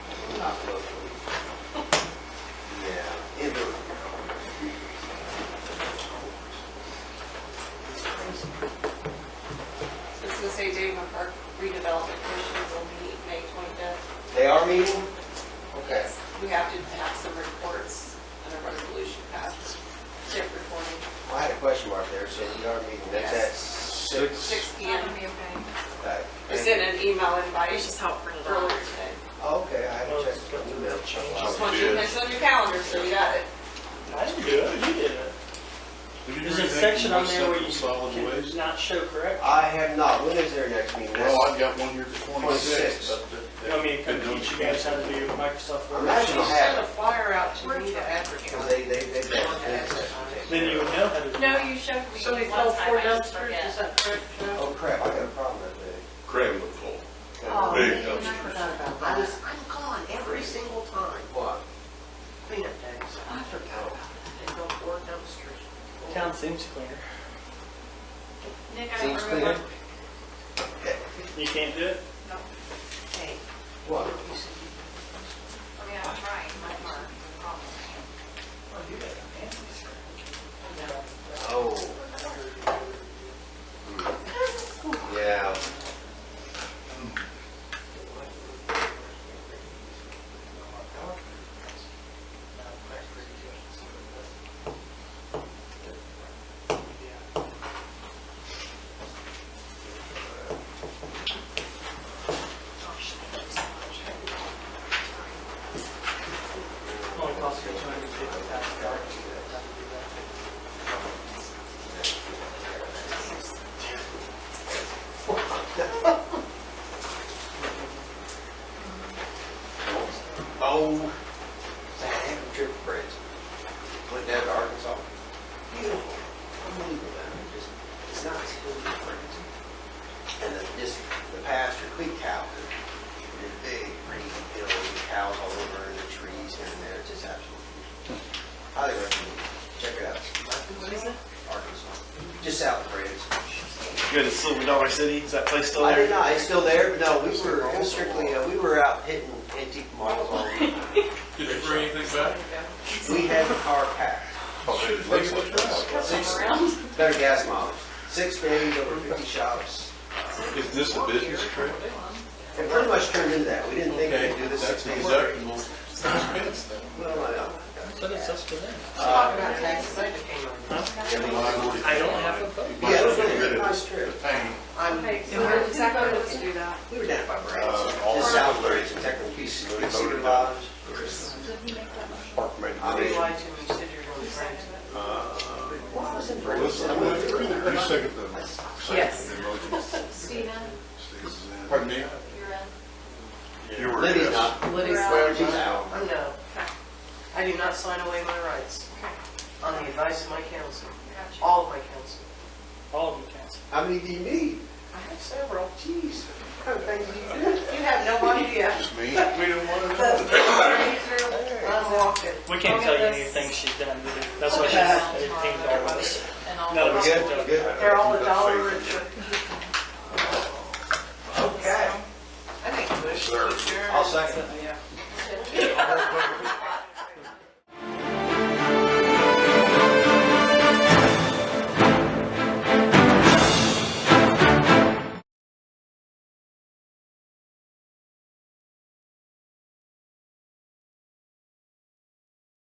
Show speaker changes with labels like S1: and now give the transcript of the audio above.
S1: not locally. Yeah. It was. It's crazy.
S2: This is the St. David Park redevelopment commission will meet May 25th.
S1: They are meeting? Okay.
S2: We have to have some reports and a resolution passed, tip reporting,
S1: Well, I had a question mark there, so we are meeting, that's at six?
S2: six
S3: Yeah,
S2: PM.
S3: it'll be okay.
S1: Okay.
S2: I sent an email invite
S3: It's just how it printed
S2: earlier
S3: out.
S2: today.
S1: Oh, Okay, I haven't checked my email.
S2: Just want you to it's on your calendar, so you got it.
S4: I didn't do it, you did it. There's a section on there where you can not show correct.
S1: I have not, when is their next meeting? That's-
S5: Well, I've got one here for
S1: 26.
S5: 26, but.
S4: You want me to come teach you guys how to do Microsoft
S1: I
S4: Word?
S1: imagine I'll have it,
S2: flyer out to me to
S1: because
S2: advertise.
S1: they, they, they.
S4: Then you would know how to do it.
S3: No, you showed me
S6: So they
S3: one
S6: fell
S3: time,
S6: four
S3: I just
S6: dumpsters, is
S3: forget.
S6: that correct, Joe?
S1: Oh crap, I got a problem with that.
S5: Crab look full.
S6: Oh,
S5: Big
S6: man, I
S5: dumpsters.
S6: forgot about that. I was, I'm gone every single time,
S1: What?
S6: cleanup days. I forgot about that. They go four dumpsters.
S4: Town seems cleaner.
S3: Nick, I
S1: Seems
S3: don't
S1: clear?
S3: remember.
S4: You can't do it?
S6: Hey,
S1: What?
S6: you said you-
S3: I mean, I'm trying, my mark, promise.
S6: oh, you got a family, sir.
S1: Oh. Yeah.
S4: Only costs you two hundred and fifty
S1: Oh,
S4: thousand dollars.
S1: Oh. I had a trip for friends. Went down to Arkansas. Beautiful. Unbelievable down there. Just, it's not school friends. And the, this, the pasture, Creek Cow, this big green hill, with cows all over and the trees here and there. It's just absolutely beautiful. Highly recommend it. Check it out. What is it? Arkansas. Just south of Brands.
S7: Go to Silver Dollar City. Is that place still
S1: I
S7: there?
S1: did not, it's still there, but no, we were it was strictly, uh, we were out hitting antique models all week.
S5: Did they bring anything back?
S1: We had the car packed,
S5: It looks like that.
S1: six, better gas mileage, six days, over fifty shops.
S5: Is this a business trip?
S1: It pretty much turned into that, we didn't think we'd do this six
S5: That's a
S1: days.
S5: deductible expense then.
S1: Well, I know.
S4: So that's up to them.
S6: Talk about taxes, I became on this.
S4: I don't have a vote.
S1: Yeah, it was really a nice trip.
S5: Pain.
S6: I'm,
S3: Okay, so where does that go to do that?
S1: We were down by Brands,
S5: Uh, all
S1: just
S5: the-
S1: south of Brands, in Technical Peace,
S5: Voted down.
S1: Cedar Lodge.
S5: Park made
S6: I
S5: the
S6: realized when you said you were going to bring it.
S1: Well, I was in
S5: motion.
S1: Brands.
S5: Listen,
S1: I
S5: I
S1: went
S5: went
S1: through
S5: through
S1: there.
S5: there. You second the, second the motion.
S3: Stina,
S5: Pardon me?
S3: you're in.
S5: You were.
S1: Lydia's
S5: yes.
S1: not,
S6: Lydia's
S1: Well, she's
S6: not-
S1: out.
S6: I'm no. I do not sign away my rights on the advice of my counsel,
S3: Gotcha.
S6: all of my counsel.
S4: All of you council.
S1: How many do you need?
S6: I have several.
S1: Jeez, how many things do you do?
S6: You have no idea.
S5: Just me?
S4: We don't